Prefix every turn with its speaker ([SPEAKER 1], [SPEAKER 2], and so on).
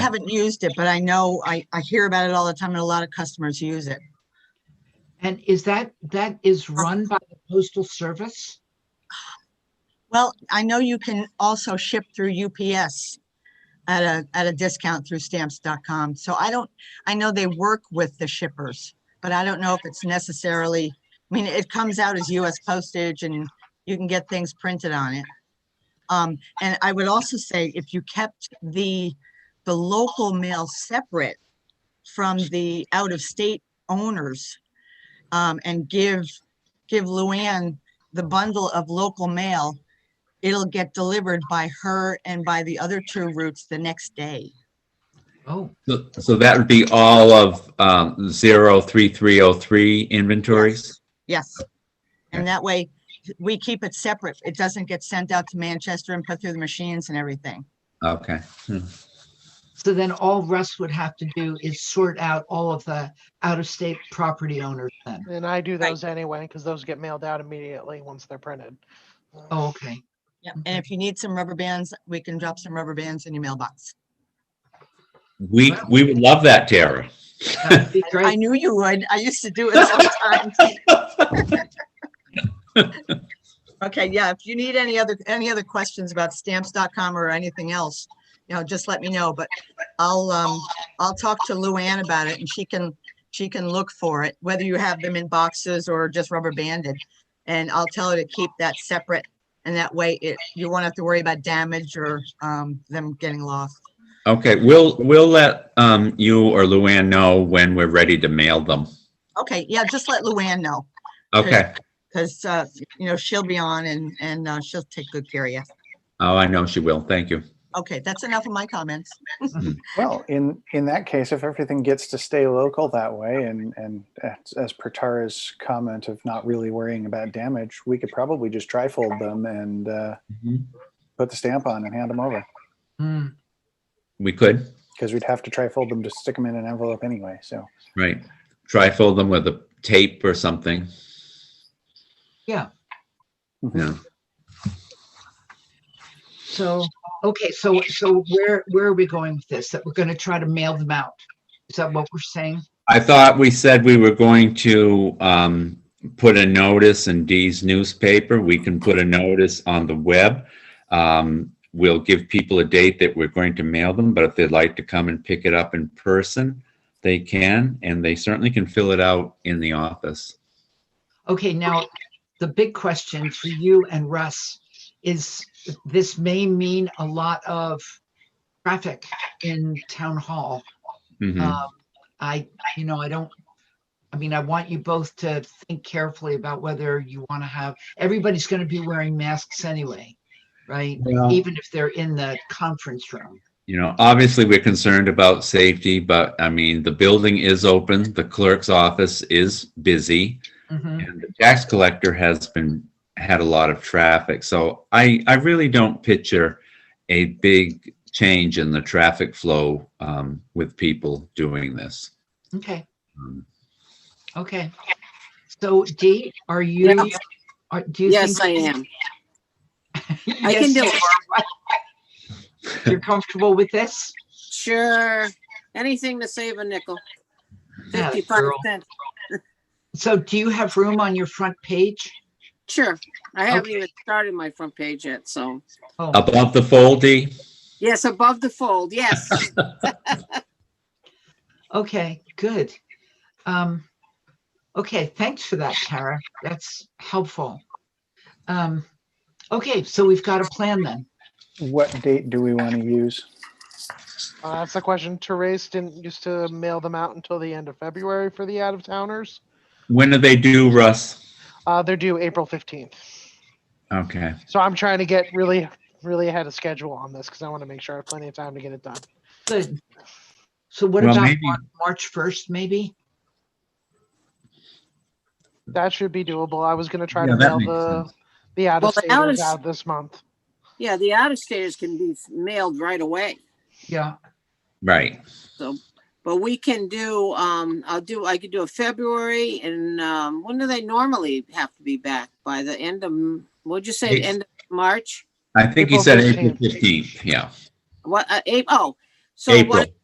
[SPEAKER 1] haven't used it, but I know, I, I hear about it all the time and a lot of customers use it.
[SPEAKER 2] And is that, that is run by the postal service?
[SPEAKER 1] Well, I know you can also ship through UPS at a, at a discount through stamps.com. So I don't, I know they work with the shippers, but I don't know if it's necessarily, I mean, it comes out as US postage and you can get things printed on it. Um, and I would also say if you kept the, the local mail separate from the out-of-state owners, um, and give, give Luann the bundle of local mail, it'll get delivered by her and by the other two routes the next day.
[SPEAKER 2] Oh,
[SPEAKER 3] So- So that would be all of um, 03303 inventories?
[SPEAKER 1] Yes. And that way, we keep it separate. It doesn't get sent out to Manchester and put through the machines and everything.
[SPEAKER 3] Okay. Hmm.
[SPEAKER 2] so then all Russ would have to do is sort out all of the out-of-state property owners then?
[SPEAKER 4] And I do
[SPEAKER 1] Right.
[SPEAKER 4] those anyway, because those get mailed out immediately once they're printed.
[SPEAKER 2] Oh, okay.
[SPEAKER 1] Yep. And if you need some rubber bands, we can drop some rubber bands in your mailbox.
[SPEAKER 3] We, we would love that, Tara.
[SPEAKER 2] That would be
[SPEAKER 1] I
[SPEAKER 2] great.
[SPEAKER 1] knew you would. I used to do it sometimes. Okay, yeah, if you need any other, any other questions about stamps.com or anything else, you know, just let me know, but I'll, um, I'll talk to Luann about it and she can, she can look for it, whether you have them in boxes or just rubber banded. And I'll tell her to keep that separate and that way it, you won't have to worry about damage or, um, them getting lost.
[SPEAKER 3] Okay, we'll, we'll let um, you or Luann know when we're ready to mail them.
[SPEAKER 1] Okay, yeah, just let Luann know,
[SPEAKER 3] Okay.
[SPEAKER 1] because, uh, you know, she'll be on and, and, uh, she'll take good care of you.
[SPEAKER 3] Oh, I know she will. Thank you.
[SPEAKER 1] Okay, that's enough of my comments.
[SPEAKER 5] Well, in, in that case, if everything gets to stay local that way and, and as- as per Tara's comment of not really worrying about damage, we could probably just trifold them and uh,
[SPEAKER 3] Mhm.
[SPEAKER 5] put the stamp on and hand them over.
[SPEAKER 2] Hmm.
[SPEAKER 3] We could,
[SPEAKER 5] Because we'd have to trifold them to stick them in an envelope anyway, so.
[SPEAKER 3] right? Trifold them with a tape or something. Yeah.
[SPEAKER 2] So, okay, so, so where, where are we going with this? That we're gonna try to mail them out? Is that what we're saying?
[SPEAKER 3] I thought we said we were going to um, put a notice in Dee's newspaper. We can put a notice on the web. Um, We'll give people a date that we're going to mail them, but if they'd like to come and pick it up in person, they can, and they certainly can fill it out in the office.
[SPEAKER 2] Okay, now, the big question for you and Russ is this may mean a lot of traffic in town hall.
[SPEAKER 3] Mhm.
[SPEAKER 2] Um, I, you know, I don't, I mean, I want you both to think carefully about whether you want to have, everybody's going to be wearing masks anyway, right? Even if they're in the conference room.
[SPEAKER 3] You know, obviously, we're concerned about safety, but I mean, the building is open, the clerk's office is busy.
[SPEAKER 2] Mhm.
[SPEAKER 3] And the tax collector has been, had a lot of traffic, so I, I really don't picture a big change in the traffic flow um, with people doing this.
[SPEAKER 2] Okay,
[SPEAKER 3] Um,
[SPEAKER 2] okay. So Dee, are you,
[SPEAKER 6] Yeah.
[SPEAKER 2] are, do you?
[SPEAKER 6] Yes,
[SPEAKER 2] think-
[SPEAKER 6] I am. I can do it.
[SPEAKER 2] You're comfortable with this?
[SPEAKER 6] Sure. Anything to save a nickel.
[SPEAKER 2] Yeah,
[SPEAKER 6] Fifty-five
[SPEAKER 2] girl.
[SPEAKER 6] cents.
[SPEAKER 2] So do you have room on your front page?
[SPEAKER 6] Sure. I haven't
[SPEAKER 2] Okay.
[SPEAKER 6] even started my front page yet, so.
[SPEAKER 2] Oh,
[SPEAKER 3] Above the foldy,
[SPEAKER 6] Yes, above the fold, yes.
[SPEAKER 2] okay, good. Um, okay, thanks for that, Tara. That's helpful. Um, okay, so we've got a plan then.
[SPEAKER 5] What date do we want to use?
[SPEAKER 4] Uh, that's the question. Therese didn't used to mail them out until the end of February for the out of towners.
[SPEAKER 3] when do they do, Russ?
[SPEAKER 4] Uh, they're due April 15th.
[SPEAKER 3] Okay,
[SPEAKER 4] So I'm trying to get really, really ahead of schedule on this because I want to make sure I have plenty of time to get it done.
[SPEAKER 2] Good. So what
[SPEAKER 3] Well,
[SPEAKER 2] about
[SPEAKER 3] maybe-
[SPEAKER 2] Mar- March first, maybe?
[SPEAKER 4] That should be doable. I was going to try
[SPEAKER 3] Yeah,
[SPEAKER 4] to
[SPEAKER 3] that
[SPEAKER 4] mail
[SPEAKER 3] makes
[SPEAKER 4] the,
[SPEAKER 3] sense.
[SPEAKER 4] the out
[SPEAKER 6] Well,
[SPEAKER 4] of
[SPEAKER 6] the
[SPEAKER 4] staters
[SPEAKER 6] out-of-
[SPEAKER 4] out this month.
[SPEAKER 6] Yeah, the out-of-staters can be mailed right away,
[SPEAKER 2] Yeah,
[SPEAKER 3] right,
[SPEAKER 6] but we can do, um, I'll do, I could do a February and, um, when do they normally have to be back? By the end of, what'd you say,
[SPEAKER 3] Eight.
[SPEAKER 6] end of March?
[SPEAKER 3] I think he
[SPEAKER 4] April
[SPEAKER 3] said April
[SPEAKER 4] 15th.
[SPEAKER 3] fifteenth, yeah.
[SPEAKER 6] What, uh, April, oh, So what
[SPEAKER 3] April.